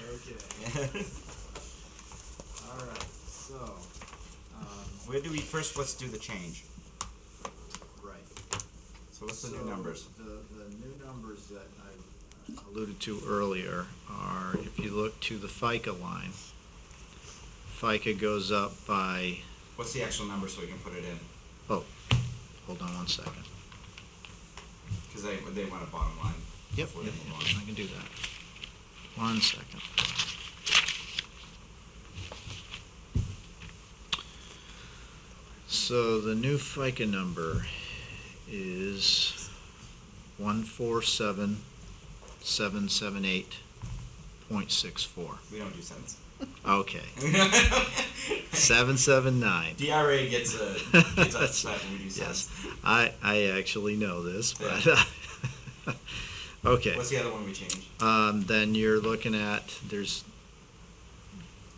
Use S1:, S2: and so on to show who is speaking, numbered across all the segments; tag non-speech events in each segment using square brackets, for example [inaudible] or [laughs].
S1: Okay. All right. So, [laughs] um,
S2: Where do we first? Let's do the change.
S1: right.
S2: So what's the
S1: So
S2: new numbers?
S1: The, the new numbers that I uh, alluded to earlier are, if you look to the FICA line, FICA goes up by,
S2: What's the actual number so we can put it in?
S1: oh, hold on one second.
S2: Because they they want a bottom line.
S1: Yep,
S2: before they
S1: yep,
S2: move
S1: yep, I can do that. One second. So the new FICA number is one four seven, seven seven eight, point six four.
S2: on. We don't do cents. [laughs]
S1: Okay, seven seven nine.
S2: DRA gets a
S1: [laughs]
S2: gets upset when we do
S1: Yes,
S2: cents.
S1: I, I actually know this, but, [laughs] okay.
S2: What's the other one we change?
S1: Um, then you're looking at, there's,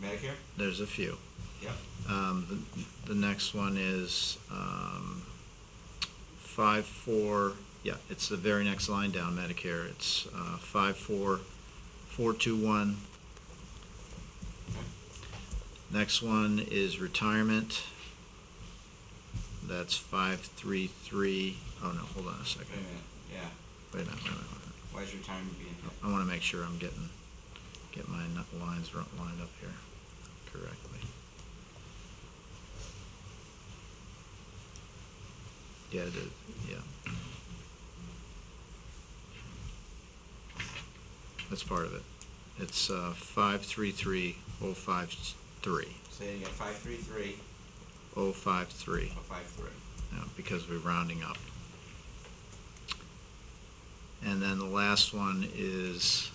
S2: Medicare.
S1: there's a few.
S2: Yep.
S1: Um, the, the next one is, um, five, four, yeah, it's the very next line down, Medicare. It's, uh, five, four, four, two, one. Next one is retirement. That's five, three, three. Oh no, hold on a second.
S2: Wait a minute. Yeah.
S1: Wait a minute, wait a minute, wait a minute.
S2: Why is your time being hit?
S1: I want to make sure I'm getting, get my nu- lines ru- lined up here correctly. Yeah, it is, yeah. That's part of it. It's uh, five three three oh five three,
S2: So you got five three three
S1: oh five three,
S2: or five three.
S1: because we're rounding up. And then the last one is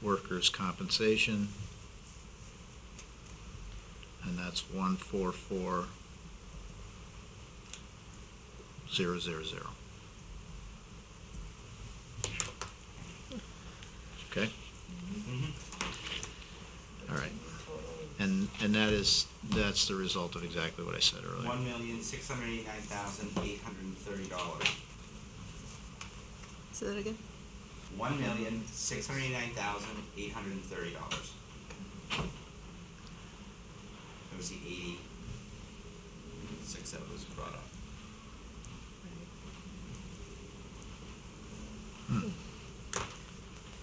S1: workers' compensation. And that's one four four zero zero zero. Okay,
S2: Mm-hmm.
S1: all right. And, and that is, that's the result of exactly what I said earlier.
S2: One million six hundred eighty nine thousand eight hundred and thirty dollars.
S3: Say that again?
S2: One million six hundred eighty nine thousand eight hundred and thirty dollars. That was the eighty six that was brought up.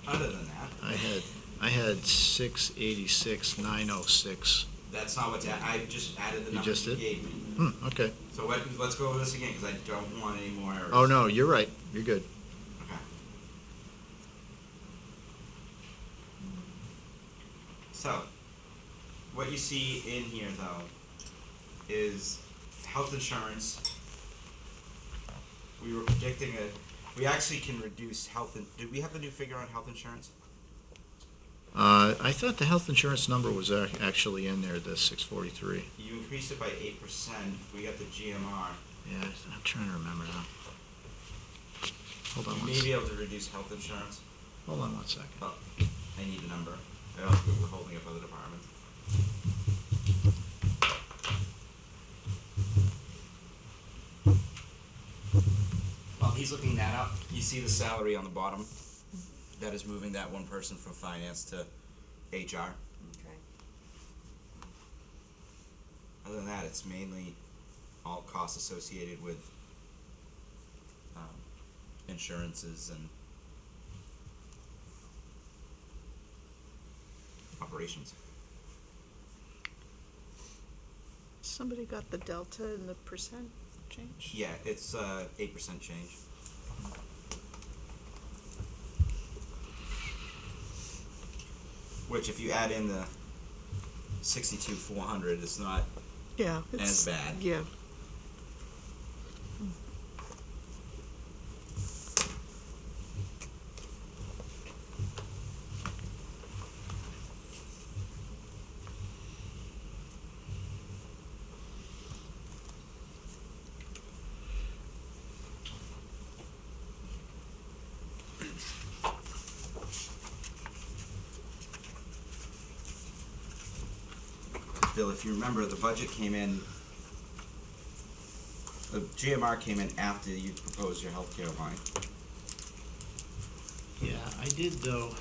S2: Other than that,
S1: I had, I had six eighty-six, nine oh six.
S2: that's not what's, a- I just added the
S1: You
S2: numbers
S1: just
S2: you
S1: did?
S2: gave me.
S1: Hmm, okay.
S2: So what, let's go over this again, because I don't want any more errors.
S1: Oh, no, you're right. You're good.
S2: Okay. So, what you see in here though is health insurance. We were predicting a, we actually can reduce health, in, did we have the new figure on health insurance?
S1: Uh, I thought the health insurance number was ac- actually in there, the six forty-three.
S2: You increased it by eight percent, we got the GMR.
S1: Yeah, I- I'm trying to remember now. Hold on
S2: You
S1: one,
S2: may be
S1: s-
S2: able to reduce health insurance,
S1: hold on one second.
S2: but I need a number. I don't think we're holding up other departments. While he's looking that up, you see the salary on the bottom? That is moving that one person from finance to HR.
S3: Okay.
S2: Other than that, it's mainly all costs associated with um, insurances and operations.
S3: Somebody got the delta and the percent change?
S2: Yeah, it's uh, 8% change. Which, if you add in the 62 400, it's not
S3: Yeah.
S2: As bad.
S3: Yeah.
S2: Bill, if you remember, the budget came in, the GMR came in after you proposed your healthcare line.
S1: Yeah, I did though,